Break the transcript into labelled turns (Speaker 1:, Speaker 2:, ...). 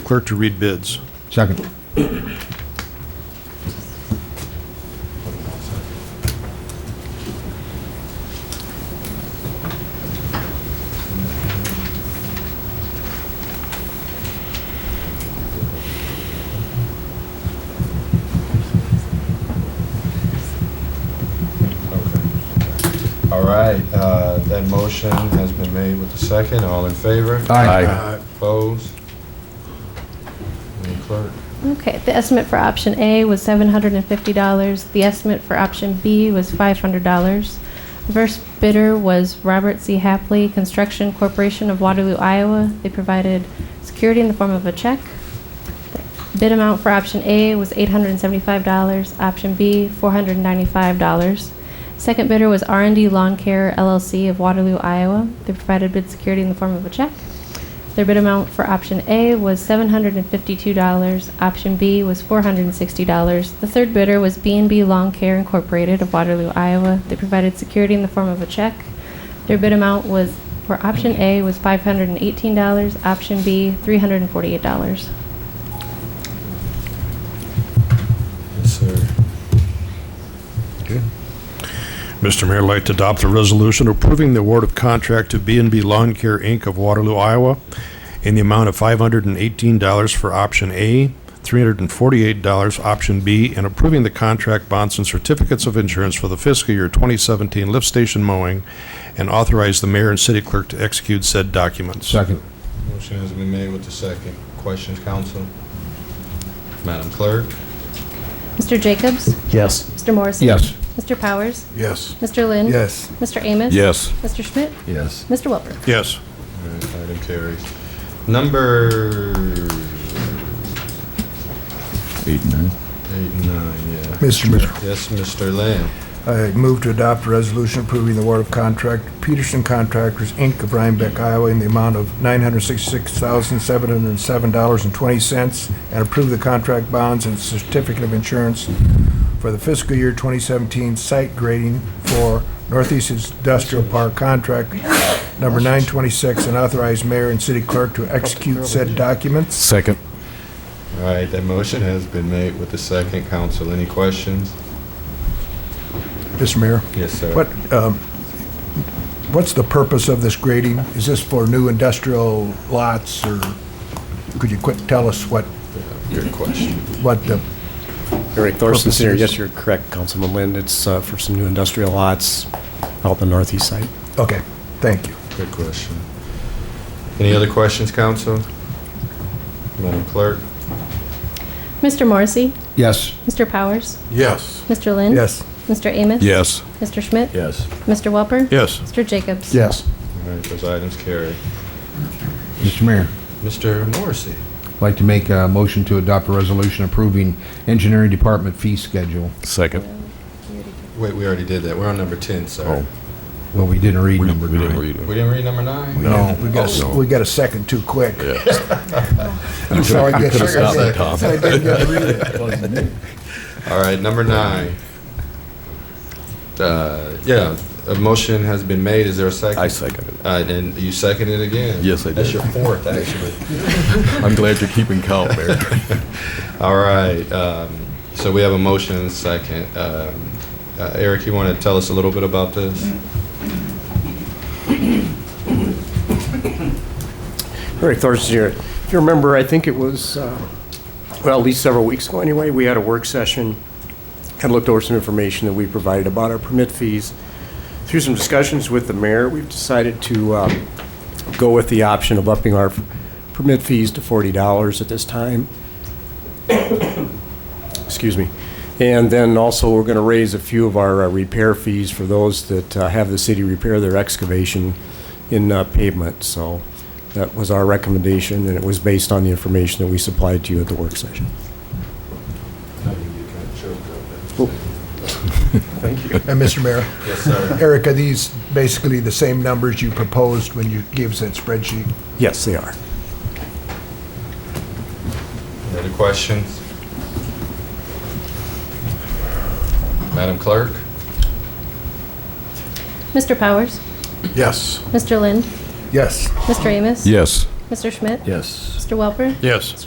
Speaker 1: Clerk to read bids.
Speaker 2: Second.
Speaker 3: Okay. All right, uh, that motion has been made with the second. All in favor?
Speaker 2: Aye.
Speaker 3: Opposed? Madam Clerk?
Speaker 4: Okay, the estimate for option A was $750. The estimate for option B was $500. The First bidder was Robert C. Hapley Construction Corporation of Waterloo, Iowa. They provided security in the form of a check. The Bid amount for option A was $875, option B, $495. Second bidder was r and D Lawn Care LLC of Waterloo, Iowa. They provided bid security in the form of a check. Their bid amount for option A was $752, option B was $460. The third bidder was b and b Lawn Care Incorporated of Waterloo, Iowa. They provided security in the form of a check. Their bid amount was, for option A was $518, option B $348.
Speaker 3: Yes, sir.
Speaker 1: Mr. Mayor, I'd like to adopt a resolution approving the award of contract to b and b Lawn Care, Inc. of Waterloo, Iowa, in the amount of $518 for option A, $348 option B, and approving the contract bonds and certificates of insurance for the fiscal year 2017 lift station mowing, and authorize the mayor and city clerk to execute said documents.
Speaker 2: Second.
Speaker 3: Motion has been made with the second. Questions, council? Madam Clerk?
Speaker 4: Mr. Jacobs?
Speaker 5: Yes.
Speaker 4: Mr. Morrissey?
Speaker 2: Yes.
Speaker 4: Mr. Powers?
Speaker 1: Yes.
Speaker 4: Mr. Lynn?
Speaker 6: Yes.
Speaker 4: Mr. Amos?
Speaker 6: Yes.
Speaker 4: Mr. Schmidt?
Speaker 5: Yes.
Speaker 4: Mr. Welper?
Speaker 1: Yes.
Speaker 3: All right, Item carries. Number
Speaker 5: Eight and nine.
Speaker 3: eight and nine, yeah.
Speaker 6: Mr. Mayor,
Speaker 3: Yes, Mr. Lamb.
Speaker 6: I move to adopt a resolution approving the award of contract to Peterson Contractors, Inc. of Rhinebeck, Iowa, in the amount of $966,707.20, and approve the contract bonds and certificate of insurance for the fiscal year 2017 site grading for Northeast Industrial Park Contract Number 926, and authorize mayor and city clerk to execute said documents.
Speaker 2: Second.
Speaker 3: All right, that motion has been made with the second. Council, any questions?
Speaker 6: Mr. Mayor?
Speaker 3: Yes, sir.
Speaker 6: What, um, what's the purpose of this grading? Is this for new industrial lots, or could you quick tell us what,
Speaker 3: Good question.
Speaker 6: what the,
Speaker 7: Eric Thorson,
Speaker 6: Purposes.
Speaker 7: Senior. Yes, you're correct, Councilman Lind. It's uh, for some new industrial lots out the northeast side.
Speaker 6: okay, thank you.
Speaker 3: Good question. Any other questions, council? Madam Clerk?
Speaker 4: Mr. Morrissey?
Speaker 2: Yes.
Speaker 4: Mr. Powers?
Speaker 6: Yes.
Speaker 4: Mr. Lynn?
Speaker 6: Yes.
Speaker 4: Mr. Amos?
Speaker 1: Yes.
Speaker 4: Mr. Schmidt?
Speaker 5: Yes.
Speaker 4: Mr. Welper?
Speaker 1: Yes.
Speaker 4: Mr. Jacobs?
Speaker 2: Yes.
Speaker 3: All right, those items carry.
Speaker 2: Mr. Mayor,
Speaker 3: Mr. Morrissey?
Speaker 2: I'd like to make a motion to adopt a resolution approving engineering department fee schedule.
Speaker 5: Second.
Speaker 3: Wait, we already did that. We're on number 10,
Speaker 5: Oh,
Speaker 3: sir.
Speaker 2: Well, we didn't read number
Speaker 5: We didn't
Speaker 2: nine.
Speaker 5: read it.
Speaker 3: We didn't read number nine?
Speaker 2: No.
Speaker 6: We got, a- we got a second too quick. I'm sorry, I guess I
Speaker 3: stopped that,
Speaker 6: didn't- I didn't get to read it.
Speaker 3: All right, number nine. Uh, Yeah, a motion has been made. Is there a second?
Speaker 5: I second it.
Speaker 3: Uh, And you seconded it again?
Speaker 5: Yes, I
Speaker 3: That's
Speaker 5: did.
Speaker 3: your fourth, actually.
Speaker 5: I'm glad you're keeping count, Mayor.
Speaker 3: All right, um, so we have a motion and a second. Um, uh, Eric, you want to tell us a little bit about this?
Speaker 7: Eric Thorson, Senior. If you remember, I think it was, uh, well, at least several weeks ago anyway, we had a work session and looked over some information that we provided about our permit fees. Through some discussions with the mayor, we've decided to uh, go with the option of upping our permit fees to $40 at this time. excuse me. And then also, we're going to raise a few of our uh, repair fees for those that uh, have the city repair their excavation in uh, pavement. So that was our recommendation, and it was based on the information that we supplied to you at the work session.
Speaker 5: Oh.
Speaker 6: And Mr. Mayor? Yes, sir. Eric, are these basically the same numbers you proposed when you gave us that spreadsheet?
Speaker 7: Yes, they are.
Speaker 3: Any other questions? Madam Clerk?
Speaker 4: Mr. Powers?
Speaker 6: Yes.
Speaker 4: Mr. Lind?
Speaker 6: Yes.
Speaker 4: Mr. Amos?
Speaker 5: Yes.
Speaker 4: Mr. Schmidt?
Speaker 5: Yes.
Speaker 4: Mr. Welper?
Speaker 1: Yes.